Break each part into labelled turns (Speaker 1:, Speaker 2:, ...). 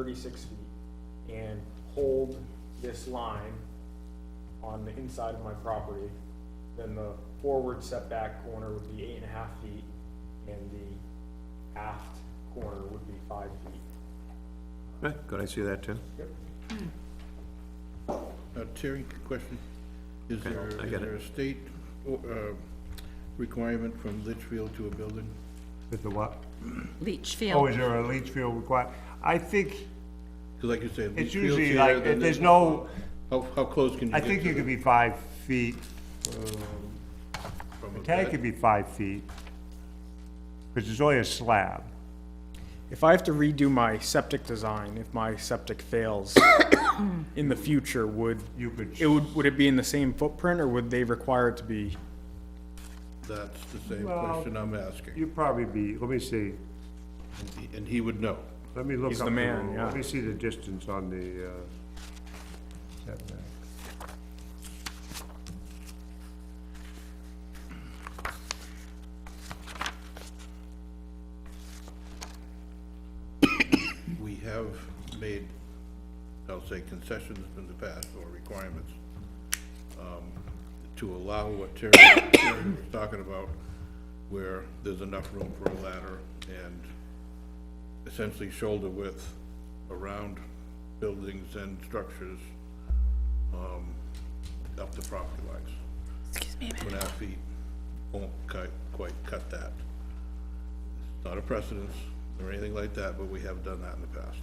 Speaker 1: thirty-six feet and hold this line on the inside of my property, then the forward setback corner would be eight and a half feet and the aft corner would be five feet.
Speaker 2: Okay, Could I see that too?
Speaker 3: Uh, Terry, question. Is there,
Speaker 2: I
Speaker 3: is
Speaker 2: get
Speaker 3: there
Speaker 2: it.
Speaker 3: a state, uh, requirement from Litchfield to a building?
Speaker 4: With the what?
Speaker 5: Leach
Speaker 4: Oh, is
Speaker 5: Field.
Speaker 4: there a leach field required? I think
Speaker 3: 'Cause like you said. Litchfield's
Speaker 4: it's usually
Speaker 3: here,
Speaker 4: like,
Speaker 3: then
Speaker 4: there's
Speaker 3: there's-
Speaker 4: no,
Speaker 3: How, how close can you
Speaker 4: I
Speaker 3: get to
Speaker 4: think you could
Speaker 3: the-
Speaker 4: be five feet,
Speaker 3: from
Speaker 4: the
Speaker 3: a
Speaker 4: tank
Speaker 3: bed?
Speaker 4: could be five feet. Because it's only a slab.
Speaker 1: If I have to redo my septic design, if my septic fails in the future, would,
Speaker 4: You could-
Speaker 1: it would, would it be in the same footprint or would they require it to be?
Speaker 3: That's the same
Speaker 4: Well-
Speaker 3: question I'm asking,
Speaker 4: You'd probably be, let me see,
Speaker 3: and he- and he would know.
Speaker 4: let me look up.
Speaker 1: He's the man,
Speaker 4: rule.
Speaker 1: yeah.
Speaker 4: Let me see the distance on the, uh, setback.
Speaker 3: We have made, I'll say concessions in the past or requirements um, to allow what Terry Terry was talking about, where there's enough room for a ladder and essentially shoulder width around buildings and structures um, up to property lines. Excuse me Two and a half feet won't quite, quite cut that not a precedence or anything like that, but we have done that in the past.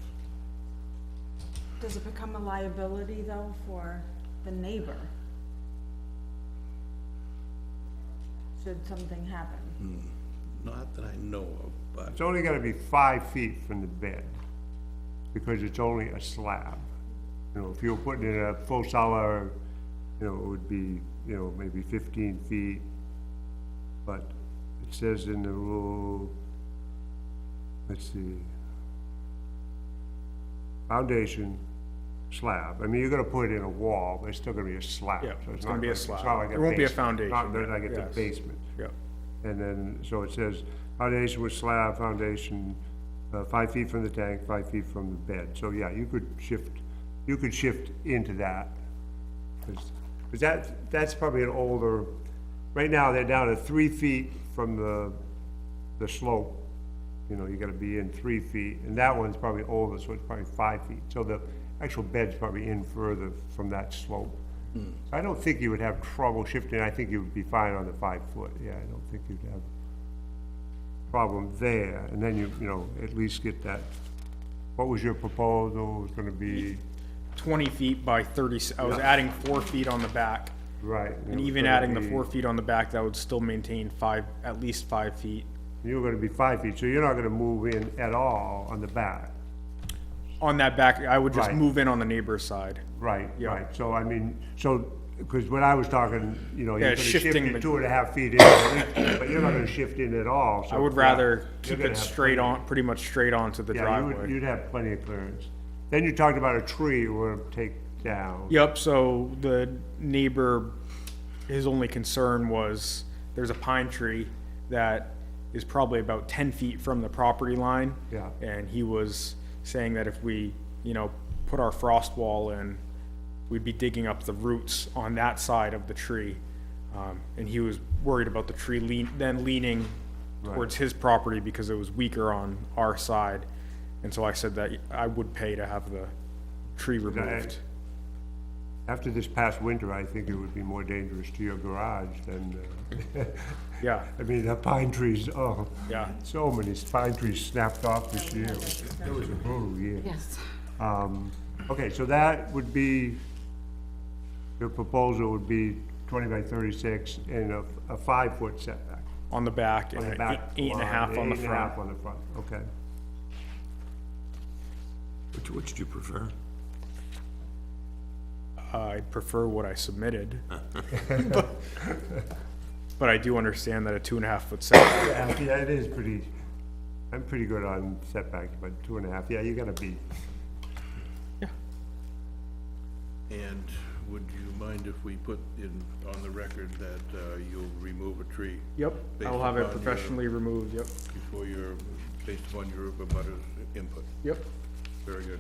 Speaker 6: Does it become a liability though for the neighbor? Should something happen?
Speaker 3: Not that I know of, but
Speaker 4: It's only gonna be five feet from the bed, because it's only a slab. You know, if you were putting in a full cellar, you know, it would be, you know, maybe fifteen feet. But it says in the rule, let's see. Foundation, slab, I mean, you're gonna put in a wall, but it's still gonna be a slab.
Speaker 1: Yeah,
Speaker 4: so
Speaker 1: it's
Speaker 4: not
Speaker 1: gonna be a
Speaker 4: it's not
Speaker 1: slab.
Speaker 4: like
Speaker 1: There won't be a
Speaker 4: basement, not-
Speaker 1: foundation,
Speaker 4: Not like it's
Speaker 1: yes.
Speaker 4: a basement.
Speaker 1: Yeah.
Speaker 4: And then, so it says, foundation with slab, foundation, uh, five feet from the tank, five feet from the bed. So, yeah, you could shift, you could shift into that. Because that, that's probably an older, right now, they're down to three feet from the, the slope. You know, you gotta be in three feet, and that one's probably older, so it's probably five feet. So the actual bed's probably in further from that slope.
Speaker 1: Hmm.
Speaker 4: I don't think you would have trouble shifting, I think you would be fine on the five foot, yeah, I don't think you'd have problem there, and then you, you know, at least get that. What was your proposal, was gonna be,
Speaker 1: twenty feet by thirty, I was adding four feet on the back.
Speaker 4: right? it
Speaker 1: And
Speaker 4: was
Speaker 1: even
Speaker 4: gonna
Speaker 1: adding the
Speaker 4: be-
Speaker 1: four feet on the back, that would still maintain five, at least five feet
Speaker 4: You were gonna be five feet, so you're not gonna move in at all on the back,
Speaker 1: on that back, I would just
Speaker 4: Right.
Speaker 1: move in on the neighbor's side.
Speaker 4: right,
Speaker 1: Yeah.
Speaker 4: right, so I mean, so, because when I was talking, you know,
Speaker 1: Yeah,
Speaker 4: you're gonna shift
Speaker 1: shifting the-
Speaker 4: it two and a half feet in, at least, but you're not gonna shift in at all, so.
Speaker 1: I would
Speaker 4: yeah,
Speaker 1: rather
Speaker 4: you're
Speaker 1: keep
Speaker 4: gonna
Speaker 1: it
Speaker 4: have
Speaker 1: straight on, pretty much straight onto the
Speaker 4: Yeah, you would,
Speaker 1: driveway.
Speaker 4: you'd have plenty of clearance. Then you talked about a tree you were gonna take down.
Speaker 1: Yep, so the neighbor, his only concern was, there's a pine tree that is probably about ten feet from the property line.
Speaker 4: Yeah.
Speaker 1: And he was saying that if we, you know, put our frost wall in, we'd be digging up the roots on that side of the tree. Um, and he was worried about the tree lean, then leaning towards his property because it was weaker on our side. And so I said that I would pay to have the tree removed.
Speaker 4: After this past winter, I think it would be more dangerous to your garage than, uh,
Speaker 1: Yeah,
Speaker 4: I mean, the pine trees, oh.
Speaker 1: Yeah.
Speaker 4: So many pine trees snapped off this year. It was a brutal year.
Speaker 5: Yes.
Speaker 4: Um, okay, so that would be, your proposal would be twenty by thirty-six and a, a five-foot setback.
Speaker 1: on the back and
Speaker 4: on the
Speaker 1: an
Speaker 4: back
Speaker 1: eight- eight and a
Speaker 4: line,
Speaker 1: half on the
Speaker 4: Eight and a half
Speaker 1: front.
Speaker 4: on the front, okay.
Speaker 2: Which, which do you prefer?
Speaker 1: I prefer what I submitted. But- But I do understand that a two and a half foot setback,
Speaker 4: Yeah, yeah, it is pretty, I'm pretty good on setbacks, but two and a half, yeah, you gotta be,
Speaker 3: And would you mind if we put in, on the record that uh, you'll remove a tree?
Speaker 1: yep,
Speaker 3: Based
Speaker 1: I'll have it
Speaker 3: upon your-
Speaker 1: professionally removed, yep,
Speaker 3: Before your, based upon your abutters input?
Speaker 1: yep.
Speaker 3: Very good.